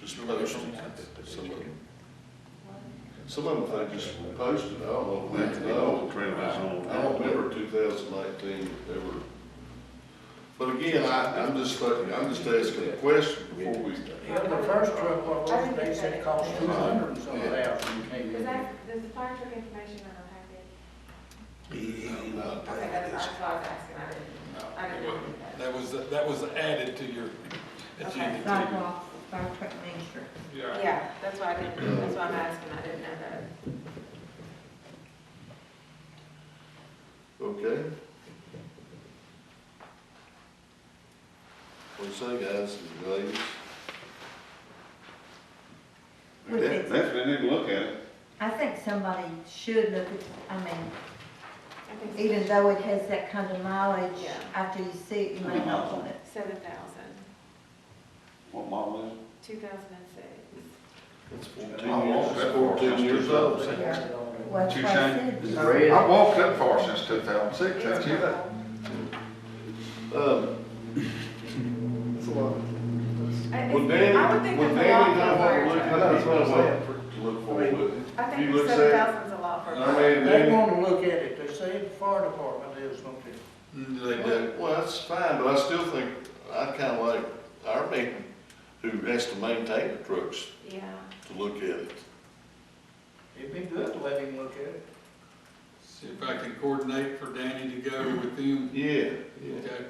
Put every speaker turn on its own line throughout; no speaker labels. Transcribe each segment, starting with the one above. just posted, some of them. Some of them they just were posted, I don't know, when, I don't, I don't remember two thousand nineteen ever. But again, I, I'm just, thinking- I'm just asking a question before we,
Yeah, the first truck, what was, they said cost two hundred and something thousand, you can't
Is
get it.
that, does the fire truck information on the
He, he not
packet? Okay,
paying
that's
this.
what I was asking, I didn't, I didn't know that.
That was, that was added to your
Okay.
agenda.
Sidewalk, fire truck main street.
Yeah.
Yeah, that's why I didn't, that's why I'm asking, I didn't know that.
okay? What do you say, guys, and ladies?
Would
Yeah.
it-
That's, they didn't look at it.
I think somebody should look at, I mean,
I think
even though it has that kind of mileage,
Yeah.
after you see it, you may not want it.
seven thousand,
What model is it?
two thousand and six.
It's fourteen
I
years,
walked
it's
that far
fourteen
since
years
2000.
old.
Well, that's
Two
what I
cents.
said.
I walked that far since two thousand six, that's it.
Um, would Danny,
I would think
would
that's a lot
Danny
for
know
a
what
fire
to look, that's
truck.
what I want to look for, would he?
I
You
think
look
seven
sad.
thousand's a lot for a fire.
I mean,
They
Danny.
wanna look at it, they say the fire department is gonna do. it.
They do, well, that's fine, but I still think, I kinda like our man who has to maintain the trucks
Yeah,
to look at it.
It'd be good to let him look at it.
See if I can coordinate for Danny to go with them.
Yeah, yeah.
Okay.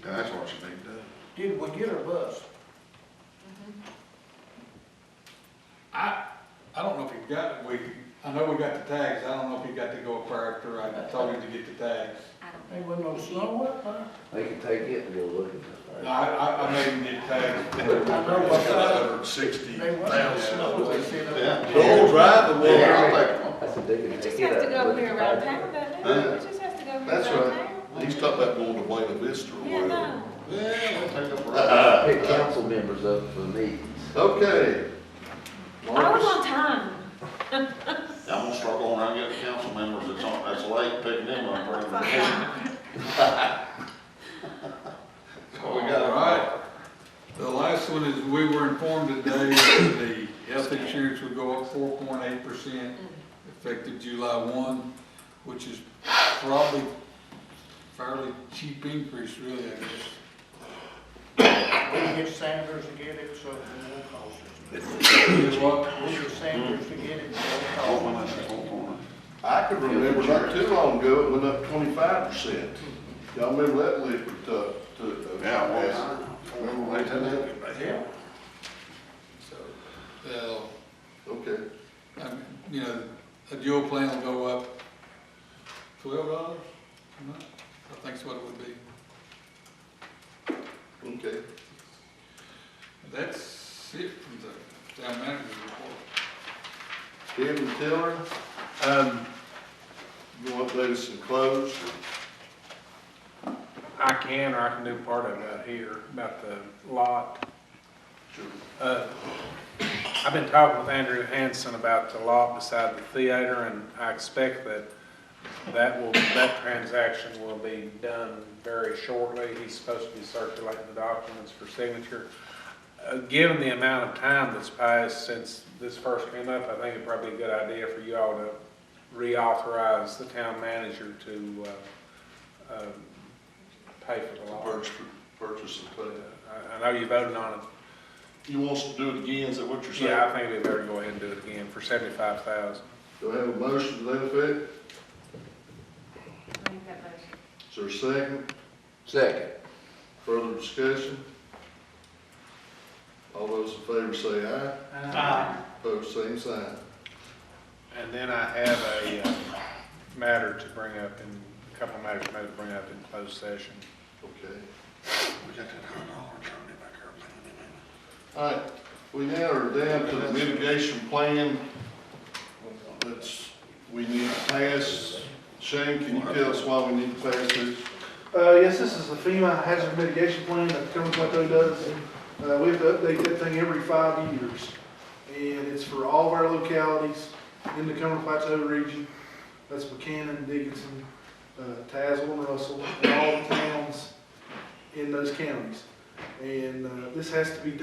And That's what you need to do.
Did we get a bus?
I, I don't know if he got, we, I know we got the tags, I don't know if he got to go up there after I told him to get the tags.
I don't
They went no snow up there.
They can take it and go look
I,
at it.
I, I made him get tags.
I know what size
Sixty
they went. They
thousand.
said, uh,
Yeah.
The old driver was,
Yeah, I'll take one.
That's a dig.
it just has to go over here around town, doesn't it? It just has to go over
That's
here around
right.
town.
he's talking about going to Buena Vista or
Yeah,
wherever.
no.
Yeah, we'll take up a ride.
Uh,
Pick council members up for meetings.
Okay.
I was
Marcus,
on time.
I'm gonna start going around getting council members that's on, that's late, picking them up. bringing them in.
All right. The last one is, we were informed today that the health insurance would go up four point eight percent effective July one, which is probably fairly cheap increase really, I guess.
We can get Sanders to get it, so it won't cost us.
Is what-
We get Sanders to get it, so
Four
it won't
minutes,
cost us.
four minutes.
I could remember not too long ago, it went up twenty-five percent. Y'all remember that liquid, uh, to. uh,
Yeah, well, remember when they did that?
Yeah.
So, they'll,
Okay.
um, you know, a dual plan will go up twelve dollars a month, I think's what it would be.
Okay,
That's it from the town manager's report.
Kevin Tiller, um, you want to update us in close?
I can, or I can do part of it out here, about the lot.
Sure.
Uh, I've been talking with Andrew Hanson about the lot beside the theater, and I expect that that will, that transaction will be done very shortly. He's supposed to be circulating the documents for signature. Uh, Given the amount of time that's passed since this first came up, I think it'd probably be a good idea for you all to reauthorize the town manager to uh, um, pay for the lot. Uh,
Purchase, purchase and pay.
I, I know you voted on it.
You want us to do it again, is that what you're saying?
Yeah, I think we better go ahead and do it again for seventy-five thousand.
Do I have a motion to that effect?
I think that motion.
Is there a second?
Second.
Further discussion? All those in favor say aye, opposed same sign.
And then I have a uh, matter to bring up in, a couple of matters I to bring up in closed session.
Okay.
We got that hundred dollar attorney back here. bringing them in.
All right, we now are down to the mitigation plan that's, we need to pass. Shane, can you tell us why we need to pass this?
Uh, yes, this is the FEMA hazard mitigation plan that Tacoma Plateau does. Uh, we have to update that thing every five years. And it's for all of our localities in the Tacoma Plateau region. That's Buchanan, Dickinson, uh, Tazewell and Russell, and all the towns in those counties. And, uh, this has to be